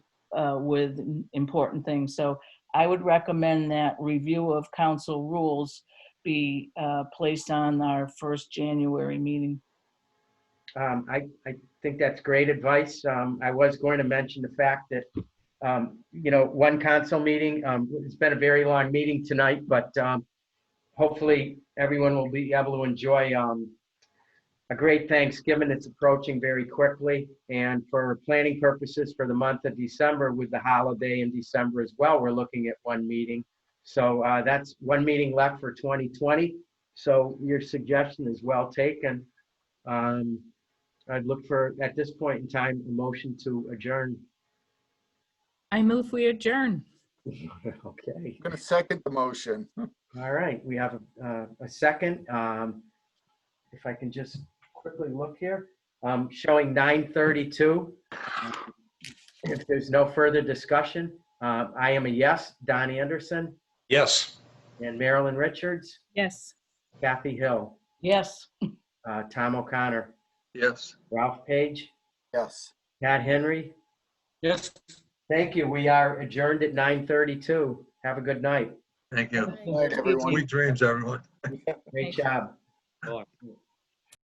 uh, with important things. So I would recommend that review of council rules be uh, placed on our first January meeting. Um, I, I think that's great advice. Um, I was going to mention the fact that, um, you know, one council meeting, um, it's been a very long meeting tonight, but, um, hopefully everyone will be able to enjoy, um, a great Thanksgiving that's approaching very quickly. And for planning purposes for the month of December with the holiday in December as well, we're looking at one meeting. So, uh, that's one meeting left for 2020. So your suggestion is well taken. Um, I'd look for, at this point in time, a motion to adjourn. I move we adjourn. Okay. I'm going to second the motion. All right, we have a, uh, a second. Um, if I can just quickly look here, um, showing nine thirty-two. If there's no further discussion, uh, I am a yes, Don Anderson Yes. and Marilyn Richards, Yes. Kathy Hill, Yes, uh, Tom O'Connor, Yes. Ralph Page, Yes. Pat Henry. Yes. Thank you. We are adjourned at nine thirty-two. Have a good night. Thank you. Night, everyone. Sweet dreams, everyone. Great Thank you. job.